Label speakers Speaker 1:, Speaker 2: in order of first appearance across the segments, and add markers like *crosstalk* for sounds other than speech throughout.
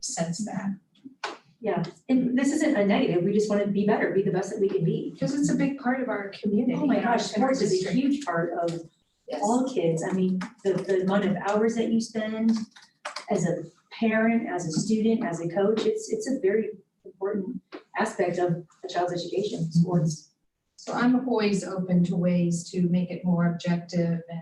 Speaker 1: sense that.
Speaker 2: Yeah, and this isn't a negative, we just wanna be better, be the best that we can be.
Speaker 1: Because it's a big part of our community.
Speaker 2: Oh my
Speaker 1: and our
Speaker 2: gosh, sports is a
Speaker 1: district.
Speaker 2: huge part of
Speaker 1: Yes.
Speaker 2: all kids, I mean, the, the amount of hours that you spend as a parent, as a student, as a coach, it's, it's a very important aspect of a child's education, sports.
Speaker 1: So I'm always open to ways to make it more objective and.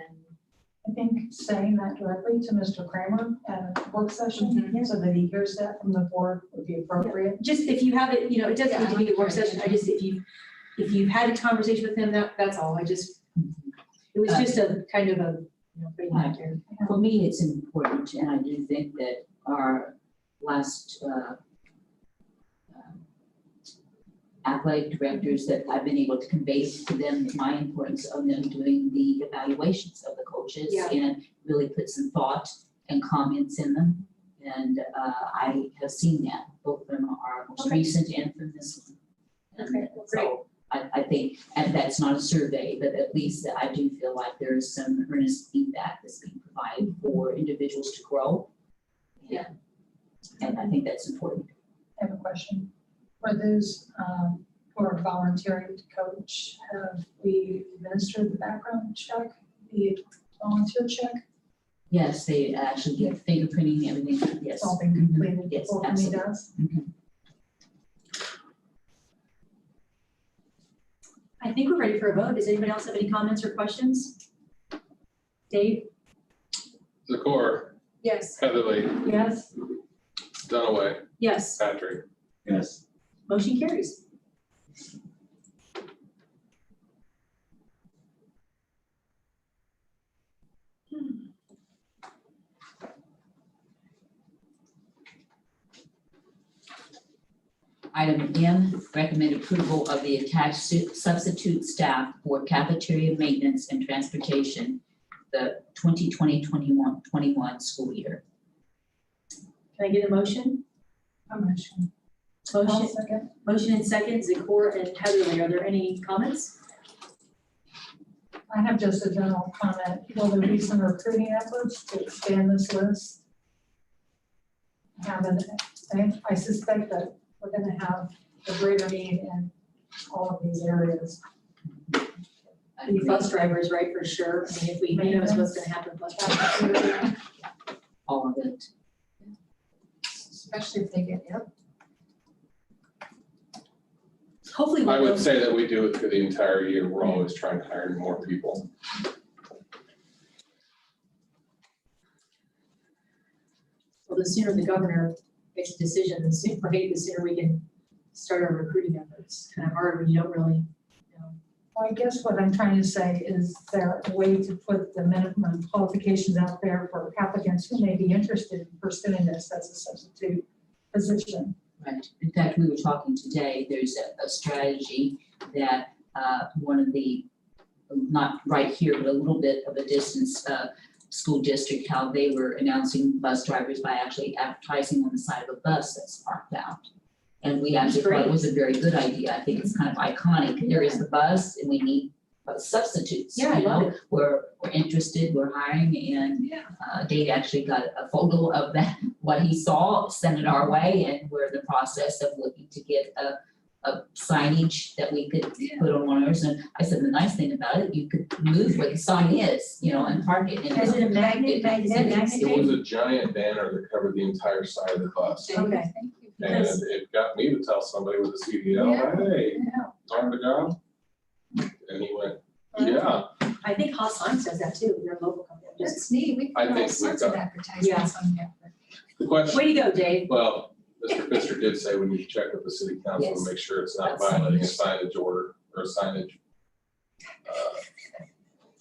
Speaker 3: I think saying that directly to Mr. Kramer at a
Speaker 1: Mm-hmm.
Speaker 3: work session, so that he hears that from the board would be appropriate.
Speaker 2: Just if you have it, you know, it doesn't need to be a work
Speaker 1: Yeah.
Speaker 2: session, I just, if you, if you've had a conversation with him, that, that's all, I just, it was just a kind of a, you know, putting it out there.
Speaker 4: For me, it's important, and I do think that our last uh, um, athletic directors, that I've been able to convey to them my importance of them doing the evaluations of the coaches
Speaker 2: Yeah.
Speaker 4: and really put some thought and comments in them. And uh, I have seen that, both from our most
Speaker 2: Okay.
Speaker 4: recent and from this one. And
Speaker 2: Okay, well, great.
Speaker 4: so I, I think, and that's not a survey, but at least that I do feel like there is some earnest feedback that's being provided for individuals to grow.
Speaker 2: Yeah.
Speaker 4: And I think that's important.
Speaker 3: I have a question. For those um, who are volunteering to coach, have we administered the background check, the volunteer check?
Speaker 4: Yes, they actually get fingerprinting, everything, yes.
Speaker 2: Oh,
Speaker 3: It's all been completed
Speaker 4: Yes,
Speaker 3: before we meet
Speaker 4: absolutely.
Speaker 3: us?
Speaker 2: I think we're ready for a vote. Does anybody else have any comments or questions? Dave?
Speaker 5: Zakor,
Speaker 1: Yes.
Speaker 5: Heatherly,
Speaker 2: Yes.
Speaker 5: Dunaway,
Speaker 2: Yes,
Speaker 5: Patrick.
Speaker 6: Yes.
Speaker 2: motion carries.
Speaker 4: Item M, recommend approval of the attached su- substitute staff for cafeteria maintenance and transportation, the 2020-21 21 school year.
Speaker 2: Can I get a motion?
Speaker 3: I'm not sure. I'll
Speaker 1: Oh,
Speaker 2: Motion,
Speaker 3: second.
Speaker 2: motion and second, Zakor and Heatherly. Are there any comments?
Speaker 3: I have just a general comment. Will there be some recruiting efforts to expand this list? Have an, I- I suspect that we're gonna have a greater need in all of these areas.
Speaker 2: The bus drivers, right, for sure. I mean, if we, who knows what's gonna happen. with bus drivers.
Speaker 4: All of it.
Speaker 1: Especially if they get ill.
Speaker 2: Hopefully. we'll
Speaker 5: I would
Speaker 2: know.
Speaker 5: say that we do it through the entire year. We're always trying to hire more people.
Speaker 2: Well, the sooner the governor makes a decision, the sooner, right, the sooner we can start our recruiting efforts. Kind of hard when you don't really know.
Speaker 3: Well, I guess what I'm trying to say is there a way to put the minimum qualifications out there for applicants who may be interested in pursuing this as a substitute position?
Speaker 4: Right. In fact, we were talking today, there's a, a strategy that, uh, one of the, not right here, but a little bit of a distance, uh, school district, how they were announcing bus drivers by actually advertising on the side of a bus that's parked out. And we actually thought it was a very good idea. I think it's kind of iconic. There is the bus and we need uh, substitutes, you
Speaker 2: Yeah, I love
Speaker 4: know? We're, we're interested, we're hiring and
Speaker 1: Yeah.
Speaker 4: uh, Dave actually got a photo of that, *laughs* what he saw, sent it our way, and we're in the process of looking to get a, a signage that we could
Speaker 1: Yeah.
Speaker 4: put on one of ours, and I said, the nice thing about it, you could move where the sign is, you know, and park it, and
Speaker 2: Is
Speaker 4: it's
Speaker 2: it a magnet, magnet, magnet?
Speaker 5: It was a giant banner that covered the entire side of the bus.
Speaker 2: Okay.
Speaker 1: Thank you.
Speaker 5: And
Speaker 2: Yes.
Speaker 5: it got me to tell somebody with a CDL, hey, time to go. And he went, yeah,
Speaker 2: I think Haas Science does that too, they're a local company. Just-
Speaker 1: That's neat. We
Speaker 5: I
Speaker 1: can do all
Speaker 5: think we've
Speaker 1: sorts of
Speaker 5: got-
Speaker 1: advertisements on here.
Speaker 5: the question,
Speaker 2: Way to go, Dave.
Speaker 5: well, Mr. Pfister did say we need to check with the city council
Speaker 4: Yes.
Speaker 5: and make sure it's not
Speaker 4: That's-
Speaker 5: violating a signage order or a signage. uh,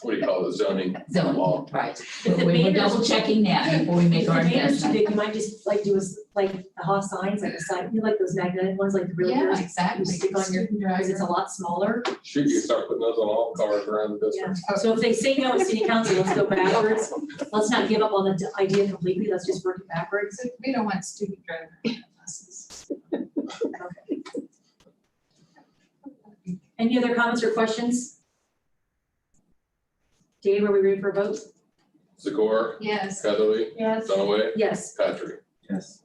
Speaker 5: What do you call it, zoning law?
Speaker 4: zone, right?
Speaker 2: If the
Speaker 4: We're
Speaker 2: banners-
Speaker 4: double checking that before we make
Speaker 2: If the
Speaker 4: our
Speaker 2: banner's too
Speaker 4: investment.
Speaker 2: big, you might just like do us, like the Haas Signs, like the sign, you know, like those magnetic ones, like the really,
Speaker 1: Yeah,
Speaker 2: because
Speaker 1: exactly.
Speaker 2: stick on your-
Speaker 1: Student
Speaker 2: it's a
Speaker 1: driver.
Speaker 2: lot smaller.
Speaker 5: Shoot, you start putting those on all cars around the district.
Speaker 2: So if they say no at city council, let's go backwards. Let's not give up on the d- idea completely, let's just work it backwards.
Speaker 1: So We don't want student driver buses.
Speaker 2: *laughs* Any other comments or questions? Dave, are we ready for a vote?
Speaker 5: Zagor,
Speaker 1: Yes.
Speaker 5: Heatherly,
Speaker 3: Yes.
Speaker 5: Dunaway,
Speaker 2: Yes.
Speaker 5: Patrick.
Speaker 6: Yes.